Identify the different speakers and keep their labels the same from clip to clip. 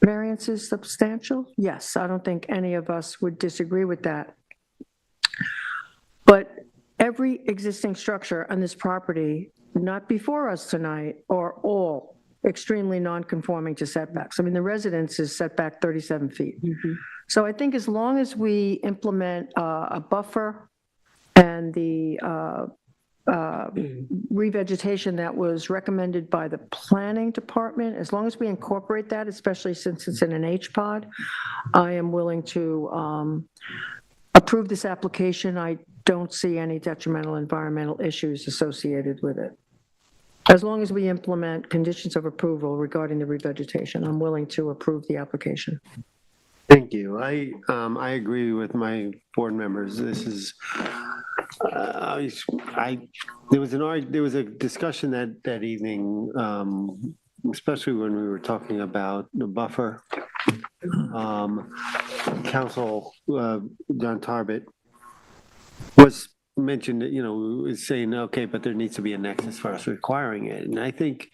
Speaker 1: variance is substantial? Yes, I don't think any of us would disagree with that. But every existing structure on this property, not before us tonight, are all extremely non-conforming to setbacks. I mean, the residence is setback 37 feet. So I think as long as we implement uh, a buffer and the uh, uh, revegetation that was recommended by the planning department, as long as we incorporate that, especially since it's in an H-pod, I am willing to um, approve this application. I don't see any detrimental environmental issues associated with it. As long as we implement conditions of approval regarding the revegetation, I'm willing to approve the application.
Speaker 2: Thank you. I, um, I agree with my board members. This is, uh, I, I- there was an, arg- there was a discussion that, that evening, um, especially when we were talking about the buffer. Um, Council, uh, John Tarbit was mentioned, that, you know, was saying, okay, but there needs to be a nexus for us requiring it. And I think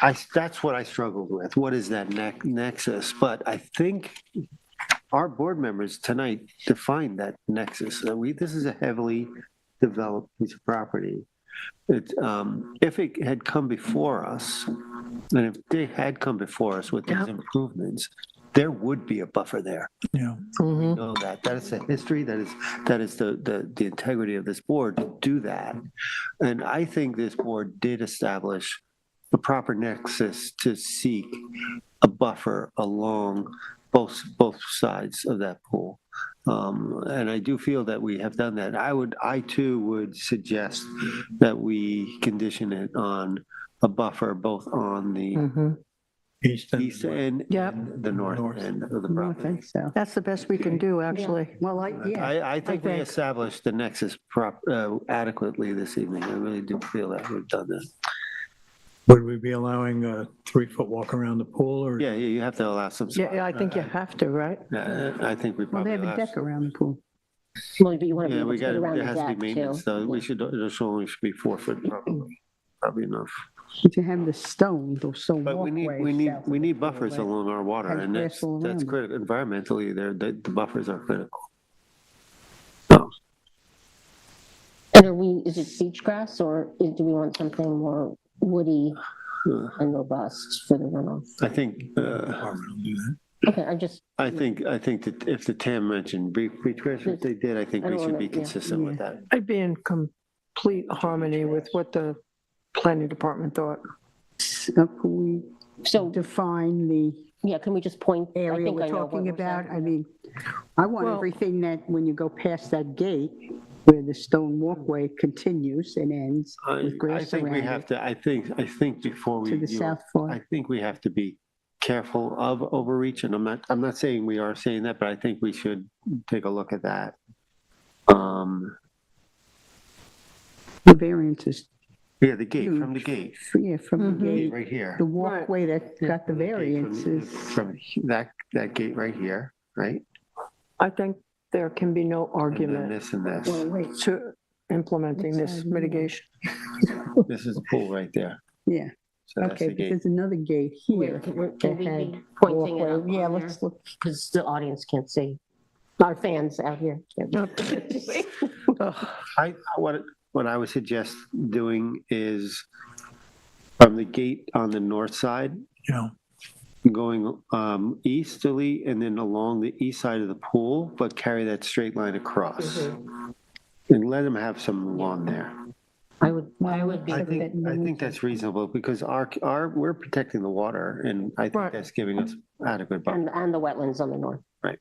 Speaker 2: I, that's what I struggled with. What is that ne- nexus? But I think our board members tonight defined that nexus. That we, this is a heavily developed piece of property. It, um, if it had come before us, and if they had come before us with
Speaker 1: Yeah.
Speaker 2: these improvements, there would be a buffer there.
Speaker 3: Yeah,
Speaker 1: Mhm.
Speaker 2: Know that. That is the history. That is, that is the, the, the integrity of this board to do that. And I think this board did establish the proper nexus to seek a buffer along both, both sides of that pool. Um, And I do feel that we have done that. I would, I too would suggest that we condition it on a buffer both on the
Speaker 4: Mm-hmm.
Speaker 1: Mhm.
Speaker 3: east and
Speaker 2: east end
Speaker 1: Yep.
Speaker 2: and the north
Speaker 3: North.
Speaker 2: end of the
Speaker 4: I don't
Speaker 2: property.
Speaker 4: think so.
Speaker 1: Mm-hmm. That's the best we can do, actually.
Speaker 4: Well, I, yeah,
Speaker 2: I, I think we
Speaker 1: think-
Speaker 2: established the nexus prop, uh, adequately this evening. I really do feel that we've done this.
Speaker 3: Would we be allowing a three-foot walk around the pool or?
Speaker 2: Yeah, yeah, you have to allow some.
Speaker 1: Yeah, yeah, I think you have to, right?
Speaker 2: Uh, I think we
Speaker 4: well,
Speaker 2: probably.
Speaker 4: they have a
Speaker 2: allow-
Speaker 4: deck around the pool.
Speaker 5: Well, but you want to be
Speaker 2: Yeah,
Speaker 5: able
Speaker 2: we
Speaker 5: to get
Speaker 2: got,
Speaker 5: around
Speaker 2: there
Speaker 5: the
Speaker 2: has to be
Speaker 5: deck too.
Speaker 2: maintenance, so we
Speaker 5: Yeah.
Speaker 2: should, it should only should be four foot probably, probably enough.
Speaker 4: If you have the stone, those stone
Speaker 2: But we
Speaker 4: walkways.
Speaker 2: need, we need,
Speaker 4: south
Speaker 2: we
Speaker 4: of
Speaker 2: need
Speaker 4: the pool,
Speaker 2: buffers
Speaker 4: right?
Speaker 2: along our water
Speaker 4: Has
Speaker 2: and that's,
Speaker 4: grass all
Speaker 2: that's
Speaker 4: around.
Speaker 2: critical. Environmentally, there, the, the buffers are critical.
Speaker 5: And are we, is it beach grass or is- do we want something more woody
Speaker 2: Uh,
Speaker 5: and robust for the runoff?
Speaker 2: I think, uh,
Speaker 5: Okay, I just,
Speaker 2: I think, I think that if the TAM mentioned brief, brief grass, if they did, I think
Speaker 5: I
Speaker 2: we
Speaker 5: don't
Speaker 2: should
Speaker 5: wanna-
Speaker 2: be
Speaker 5: yeah.
Speaker 2: consistent with that.
Speaker 1: I'd be in complete harmony with what the planning department thought.
Speaker 4: So can we
Speaker 5: so,
Speaker 4: define the
Speaker 5: yeah, can we just point? I
Speaker 4: area
Speaker 5: think
Speaker 4: we're
Speaker 5: I know what
Speaker 4: talking
Speaker 5: we're
Speaker 4: about?
Speaker 5: saying.
Speaker 4: I mean, I want
Speaker 1: Well-
Speaker 4: everything that, when you go past that gate, where the stone walkway continues and ends
Speaker 2: I,
Speaker 4: with
Speaker 2: I
Speaker 4: grass
Speaker 2: think we
Speaker 4: around
Speaker 2: have
Speaker 4: it
Speaker 2: to, I think, I think before we.
Speaker 4: to the
Speaker 2: do it,
Speaker 4: south
Speaker 2: I
Speaker 4: fork.
Speaker 2: think we have to be careful of overreach, and I'm not, I'm not saying we are saying that, but I think we should take a look at that. Um,
Speaker 4: The variance is,
Speaker 2: yeah, the gate, from the gate,
Speaker 4: yeah, from the
Speaker 5: Mm-hmm.
Speaker 4: gate.
Speaker 2: right here.
Speaker 4: The walkway that got the variance is,
Speaker 2: From that, that gate right here, right?
Speaker 1: I think there can be no
Speaker 2: And then
Speaker 1: argument
Speaker 2: this and this,
Speaker 4: well, wait,
Speaker 1: to implementing this
Speaker 4: Inside, yeah.
Speaker 1: mitigation.
Speaker 2: this is the pool right there.
Speaker 4: yeah,
Speaker 2: So that's
Speaker 4: okay,
Speaker 2: the
Speaker 4: but
Speaker 2: gate.
Speaker 4: there's another gate here.
Speaker 5: Wait, Can we- can we be
Speaker 4: that had
Speaker 5: pointing it
Speaker 4: walkway.
Speaker 5: up
Speaker 4: Yeah,
Speaker 5: on there?
Speaker 4: let's look,
Speaker 5: Because the audience can't see. Our fans out here. can't see.
Speaker 1: Ugh.
Speaker 2: I, what, what I would suggest doing is from the gate on the north side,
Speaker 3: Yeah,
Speaker 2: going um, easterly and then along the east side of the pool, but carry that straight line across. And let them have some lawn there.
Speaker 5: I would, I would be,
Speaker 2: I
Speaker 4: Except
Speaker 2: think,
Speaker 4: that
Speaker 2: I
Speaker 4: no-
Speaker 2: think that's reasonable because our, our, we're protecting the water and I
Speaker 1: Right.
Speaker 2: think that's giving us adequate buffer.
Speaker 5: and, and the wetlands on the north.
Speaker 2: Right.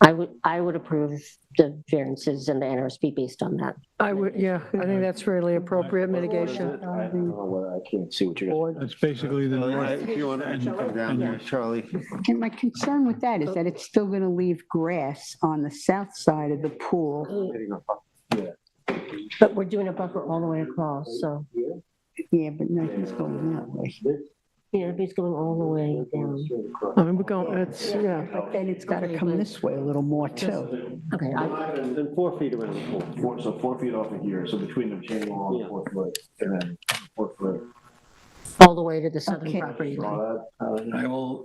Speaker 5: I would, I would approve the variances and the NRSP based on that.
Speaker 1: I would, yeah, I think that's really appropriate mitigation.
Speaker 6: I don't know whether I can't see what you're.
Speaker 3: that's basically the
Speaker 2: Well, I-
Speaker 3: north.
Speaker 2: If you want to come down there, Charlie.
Speaker 4: and my concern with that is that it's still gonna leave grass on the south side of the pool,
Speaker 5: But we're doing a buffer all the way across, so
Speaker 4: yeah, but nothing's going that way.
Speaker 5: it's going all the way down.
Speaker 1: I mean, we're going, it's, yeah.
Speaker 4: But then it's gotta come this way a little more too.
Speaker 5: Okay, I,
Speaker 2: And four feet away from the pool.
Speaker 6: Four, so four feet off of here, so between the chain wall and four foot, and then four foot.
Speaker 5: all the way to the southern
Speaker 4: Okay.
Speaker 5: property line.
Speaker 6: Draw that, uh,
Speaker 3: I will